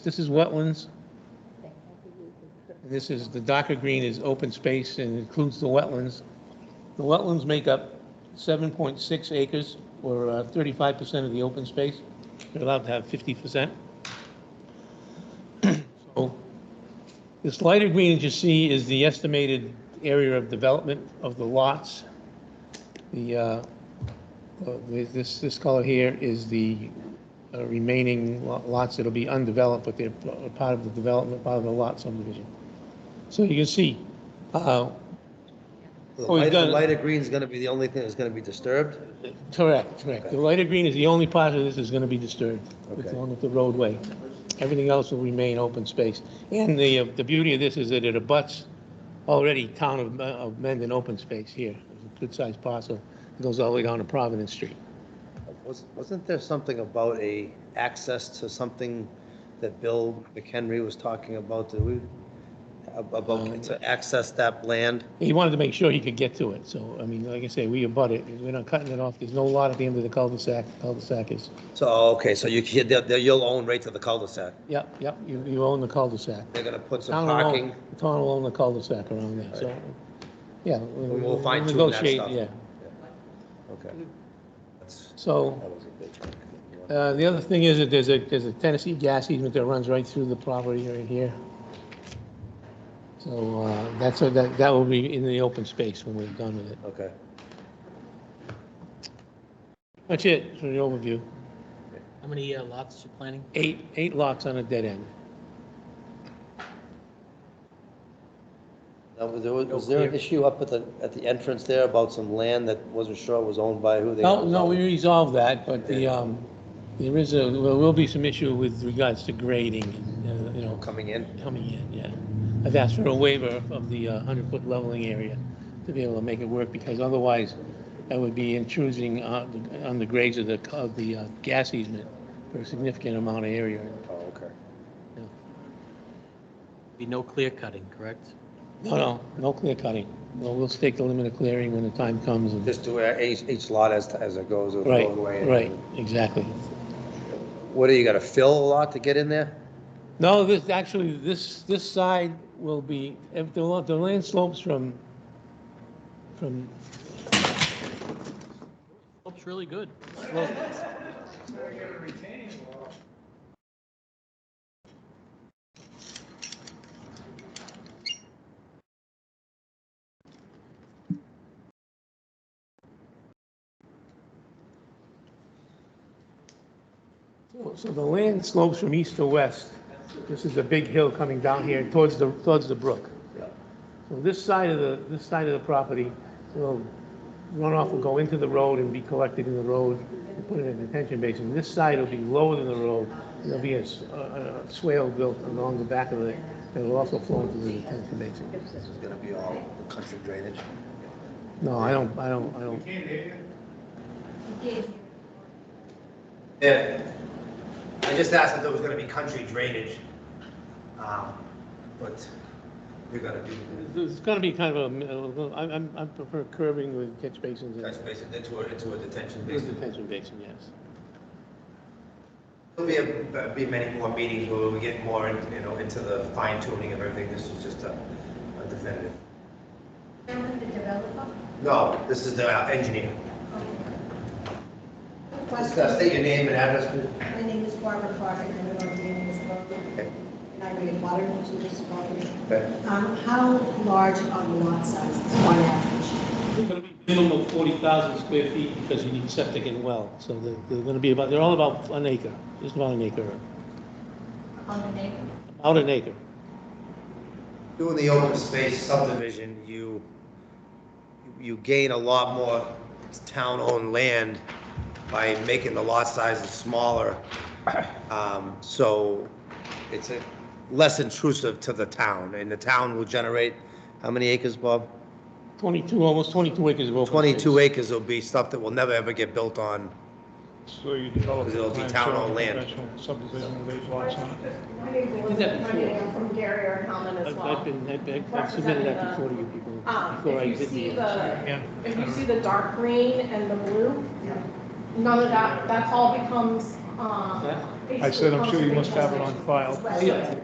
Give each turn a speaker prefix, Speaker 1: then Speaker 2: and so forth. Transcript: Speaker 1: This is wetlands. And This is, the darker green is open space and includes the wetlands. The wetlands make up 7.6 acres, or uh, 35% of the open space. They're allowed to have 50%. So this lighter green that you see is the estimated area of development of the lots. The, uh, uh, this, this color here is the uh, remaining lo- lots that'll be undeveloped, but they're p- uh, part of the development, part of the lot subdivision. So you can see, uh,
Speaker 2: The
Speaker 1: Oh, we've
Speaker 2: light- the
Speaker 1: done-
Speaker 2: lighter green's gonna be the only thing that's gonna be disturbed?
Speaker 1: correct, correct. The lighter green is the only part of this that's going to be disturbed,
Speaker 2: Okay.
Speaker 1: along with the roadway. Everything else will remain open space. And the, uh, the beauty of this is that it abuts already town of, uh, of Mendon open space here. It's a good-sized parcel. It goes all the way down to Providence Street.
Speaker 2: Was- Wasn't there something about a access to something that Bill McHenry was talking about? Did we, ab-
Speaker 1: Um,
Speaker 2: about to access that land?
Speaker 1: He wanted to make sure he could get to it, so, I mean, like I say, we abut it, we're not cutting it off, there's no lot at the end of the cul-de-sac, cul-de-sac is,
Speaker 2: So, oh, okay, so you, can- they'll- they'll- you'll own right to the cul-de-sac.
Speaker 1: yep, yep, you, you own the cul-de-sac.
Speaker 2: They're gonna put some
Speaker 1: Town will own-
Speaker 2: parking.
Speaker 1: the Town will own the cul-de-sac around there, so, yeah.
Speaker 2: We will fine tune that
Speaker 1: negotiate.
Speaker 2: stuff.
Speaker 1: Yeah,
Speaker 2: Okay. That's-
Speaker 1: so,
Speaker 2: that was a big chunk.
Speaker 1: uh, the other thing is that there's a, there's a Tennessee gas easement that runs right through the property right here. So, uh, that's, a- that, that will be in the open space when we're done with it.
Speaker 2: Okay.
Speaker 1: That's it for the overview,
Speaker 3: How many uh, lots you planning?
Speaker 1: eight, eight lots on a dead end.
Speaker 2: Now, was there, was there an issue up at the, at the entrance there about some land that wasn't sure was owned by who they?
Speaker 1: No, no, we resolved that, but the, um, there is a, there will be some issue with regards to grading, uh, you know,
Speaker 2: Coming in?
Speaker 1: coming in, yeah. I've asked for a waiver of the uh, hundred-foot leveling area to be able to make it work, because otherwise that would be intruding on, the- on the grades of the, of the uh, gas easement for a significant amount of area.
Speaker 2: Oh, okay.
Speaker 3: Be no clear cutting, correct?
Speaker 1: No, no, no clear cutting. No, we'll stake the limit of clearing when the time comes. and-
Speaker 2: Just do it each, each lot as, as it goes, it'll
Speaker 1: Right,
Speaker 2: go away.
Speaker 1: right, exactly.
Speaker 2: What, do you gotta fill a lot to get in there?
Speaker 1: No, this, actually, this, this side will be, if the, lo- the land slopes from, from,
Speaker 3: Looks really good.
Speaker 1: so the land slopes from east to west. This is a big hill coming down here towards the, towards the brook. So this side of the, this side of the property will, runoff will go into the road and be collected in the road and put in a detention basin. This side will be lower than the road. There'll be a, s- a- a- a swale built along the back of it that will also flow into the detention basin.
Speaker 2: This is gonna be all country drainage.
Speaker 1: No, I don't, I don't, I don't.
Speaker 4: Yeah, I just asked if there was gonna be country drainage, um, but you're gonna do,
Speaker 1: It's gonna be kind of a, I'm, I'm, I prefer curving with catch basins
Speaker 4: that's
Speaker 1: and
Speaker 4: basically, into a, into a detention basin.
Speaker 1: detention basin, yes.
Speaker 4: There'll be, a- be many more meetings where we get more, in- you know, into the fine tuning of everything, this is just a a definitive.
Speaker 5: With the developer?
Speaker 4: No, this is the uh, engineer. Just uh,
Speaker 5: Question,
Speaker 4: state your name and address, please.
Speaker 5: my name is Barbara Clark, and I'm on the Indian Department. And I read water into this property.
Speaker 4: Okay.
Speaker 5: Um, how large are the lot sizes on average?
Speaker 1: It's gonna be minimum forty thousand square feet because you need septic and well, so they're, they're gonna be about, they're all about an acre, just about an acre,
Speaker 5: On the neighborhood.
Speaker 1: about an acre.
Speaker 4: Doing the open space subdivision, you, you gain a lot more town-owned land by making the lot sizes smaller. Um, So it's a- less intrusive to the town, and the town will generate, how many acres, Bob?
Speaker 1: Twenty-two, almost twenty-two acres of open.
Speaker 4: 22 acres will be stuff that will never, ever get built on.
Speaker 6: So you develop.
Speaker 4: It'll
Speaker 6: a
Speaker 4: be
Speaker 6: plan
Speaker 4: town
Speaker 6: showing
Speaker 4: owned land.
Speaker 6: conventional Subdivision with eight lots on it.
Speaker 1: did that before.
Speaker 7: I'm from Gary or Hellman as
Speaker 1: I've,
Speaker 7: well.
Speaker 1: I've been, I've- I've, I've submitted that before to you people,
Speaker 7: Um,
Speaker 1: before I
Speaker 7: If you
Speaker 1: did
Speaker 7: see
Speaker 1: the.
Speaker 7: the,
Speaker 6: Yeah.
Speaker 7: if you see the dark green and the blue, none of that, that's all becomes, um,
Speaker 1: That?
Speaker 6: I said, I'm sure you must have it on file.
Speaker 7: Yeah.